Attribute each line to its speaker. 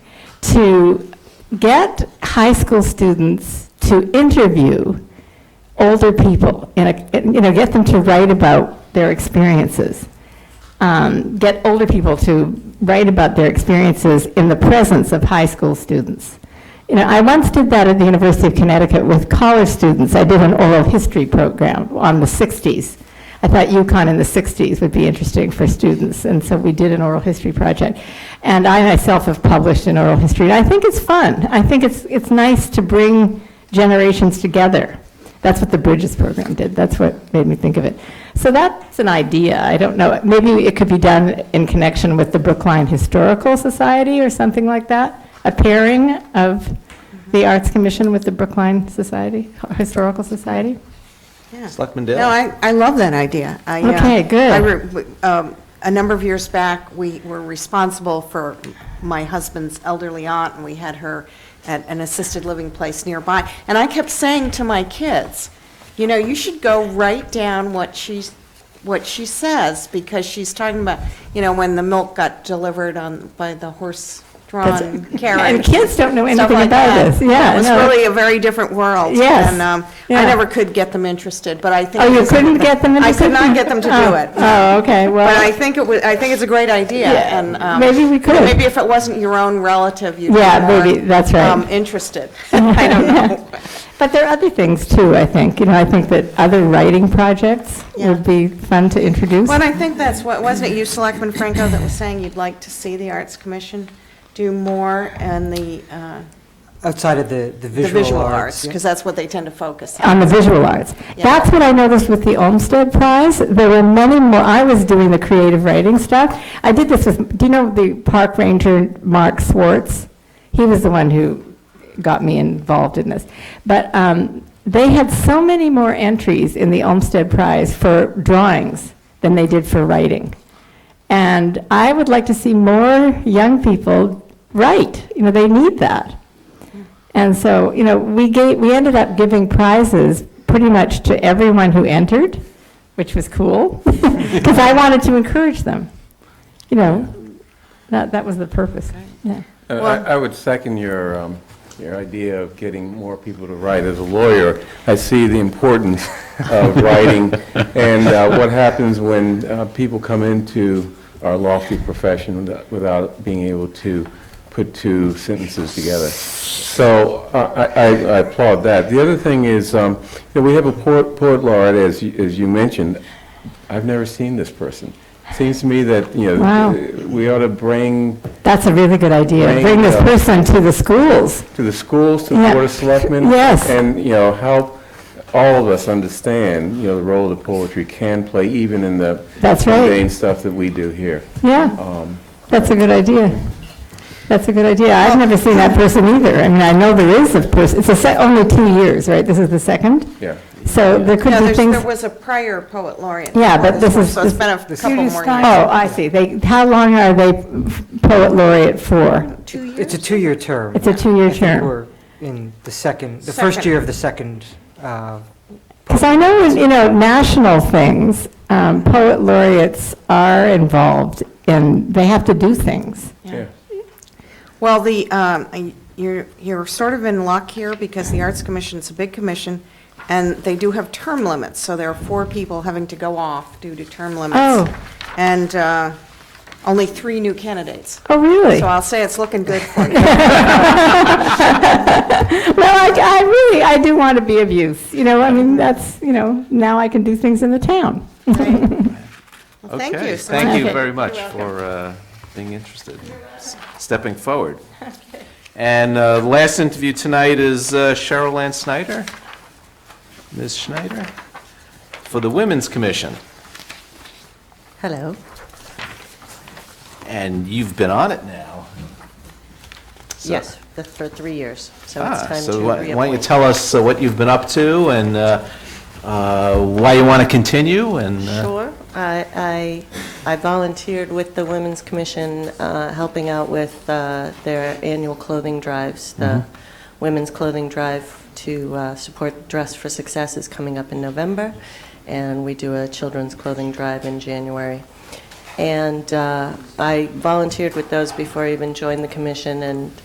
Speaker 1: to get high school students to interview older people, in a- in- you know, get them to write about their experiences. Um, Get older people to write about their experiences in the presence of high school students. You know, I once did that at the University of Connecticut with college students. I did an oral history program on the 60s. I thought UConn in the 60s would be interesting for students, and so we did an oral history project. And I myself have published in oral history, and I think it's fun. I think it's, it's nice to bring generations together. That's what the Bridges program did, that's what made me think of it. So that's an idea, I don't know, maybe it could be done in connection with the Brookline Historical Society or something like that? A pairing of the Arts Commission with the Brookline Society, Historical Society?
Speaker 2: Yeah.
Speaker 3: Selectman
Speaker 2: No,
Speaker 3: Daley?
Speaker 2: I, I love that idea. I, uh,
Speaker 1: Okay, good.
Speaker 2: I re- w- um, A number of years back, we were responsible for my husband's elderly aunt, and we had her at an assisted living place nearby. And I kept saying to my kids, you know, you should go write down what she's, what she says, because she's talking about, you know, when the milk got delivered on, by the horse-drawn
Speaker 1: That's-
Speaker 2: carriage.
Speaker 1: and kids don't know
Speaker 2: stuff
Speaker 1: anything
Speaker 2: like
Speaker 1: about
Speaker 2: that.
Speaker 1: this. Yeah,
Speaker 2: It was
Speaker 1: no.
Speaker 2: really a very different world.
Speaker 1: Yes,
Speaker 2: And um,
Speaker 1: yeah.
Speaker 2: I never could get them interested, but I think.
Speaker 1: Oh,
Speaker 2: it
Speaker 1: you
Speaker 2: was-
Speaker 1: couldn't get them
Speaker 2: I
Speaker 1: interested?
Speaker 2: could not get them to do
Speaker 1: Oh,
Speaker 2: it.
Speaker 1: Oh, okay,
Speaker 2: But I
Speaker 1: well,
Speaker 2: think it was, I think it's a great idea,
Speaker 1: Yeah,
Speaker 2: and. um,
Speaker 1: maybe we could.
Speaker 2: Maybe if it wasn't your own relative, you'd be
Speaker 1: Yeah,
Speaker 2: more,
Speaker 1: maybe, that's right.
Speaker 2: um, interested. I don't know.
Speaker 1: but there are other things too, I think. You know, I think that other writing projects would be fun to introduce.
Speaker 2: Well, and I think that's what, wasn't it you, Selectman Franco, that was saying you'd like to see the Arts Commission do more and the uh,
Speaker 4: Outside of the,
Speaker 2: the
Speaker 4: the visual
Speaker 2: visual arts?
Speaker 4: arts. yeah.
Speaker 2: Because that's what they tend to focus on.
Speaker 1: on the visual arts.
Speaker 2: Yeah.
Speaker 1: That's what I noticed with the Olmsted Prize. There were many more, I was doing the creative writing stuff. I did this with, do you know the park ranger Mark Swartz? He was the one who got me involved in this. But um, they had so many more entries in the Olmsted Prize for drawings than they did for writing. And I would like to see more young people write. You know, they need that. And so, you know, we gave, we ended up giving prizes pretty much to everyone who entered, which was cool, because I wanted to encourage them. You know, that, that was the purpose, yeah.
Speaker 5: Uh, I I would second your, um, your idea of getting more people to write. As a lawyer, I see the importance of writing and uh, what happens when uh, people come into our lofty profession without- without being able to put two sentences together. So I- I I applaud that. The other thing is, um, you know, we have a poet poet laureate, as you- as you mentioned. I've never seen this person. Seems to me that, you
Speaker 1: Wow.
Speaker 5: know, we ought to bring
Speaker 1: That's a really good idea,
Speaker 5: Bring,
Speaker 1: bring this
Speaker 5: uh,
Speaker 1: person to the schools.
Speaker 5: to the schools, to
Speaker 1: Yeah.
Speaker 5: the Board of Selectmen.
Speaker 1: Yes.
Speaker 5: And, you know, help all of us understand, you know, the role that poetry can play, even in the
Speaker 1: That's right.
Speaker 5: mundane stuff that we do here. Um,
Speaker 1: Yeah, that's a good idea. That's a good idea. I've never seen that person either. I mean, I know there is a person, it's a, se- only two years, right? This is the second?
Speaker 5: Yeah.
Speaker 1: So there could
Speaker 2: No,
Speaker 1: be
Speaker 2: there's-
Speaker 1: things.
Speaker 2: there was a prior poet laureate.
Speaker 1: Yeah,
Speaker 2: before
Speaker 1: but this
Speaker 2: one,
Speaker 1: is-
Speaker 2: So it's
Speaker 1: this-
Speaker 2: been a couple more years.
Speaker 1: Oh, I see. They, how long are they poet laureate for?
Speaker 2: Two years?
Speaker 4: It's a two-year term.
Speaker 1: It's a two-year
Speaker 4: I think
Speaker 1: term.
Speaker 4: We're in the second, the first
Speaker 2: Second.
Speaker 4: year of the second, uh,
Speaker 1: Because I know, in, you know, national things, um, poet laureates are involved and they have to do things.
Speaker 5: Yeah.
Speaker 2: Well, the, um, I- you're, you're sort of in luck here because the Arts Commission's a big commission, and they do have term limits, so there are four people having to go off due to term limits.
Speaker 1: Oh.
Speaker 2: And uh, only three new candidates.
Speaker 1: Oh, really?
Speaker 2: So I'll say it's looking good for you.
Speaker 1: Well, I, I really, I do want to be of use, you know, I mean, that's, you know, now I can do things in the town.
Speaker 2: Well, Thank
Speaker 3: Okay,
Speaker 2: you. so much.
Speaker 3: Thank you
Speaker 1: Okay.
Speaker 3: very much for uh, being interested, s- stepping forward. And uh, the last interview tonight is uh, Cheryl Ann Snyder, Ms. Schneider, for the Women's Commission.
Speaker 6: Hello.
Speaker 3: And you've been on it now. So-
Speaker 6: Yes, the- for three years, so
Speaker 2: Oh,
Speaker 6: it's
Speaker 3: Ah,
Speaker 6: time to
Speaker 3: So why- why don't you
Speaker 6: reappoint.
Speaker 3: tell us uh, what you've been up to and uh, uh, why you want to continue and... uh,
Speaker 6: Sure. I I I volunteered with the Women's Commission, uh, helping out with uh, their annual clothing drives. The
Speaker 3: Mm-hmm.
Speaker 6: Women's Clothing Drive to uh, support Dress for Success is coming up in November, and we do a children's clothing drive in January. And uh, I volunteered with those before I even joined the commission, and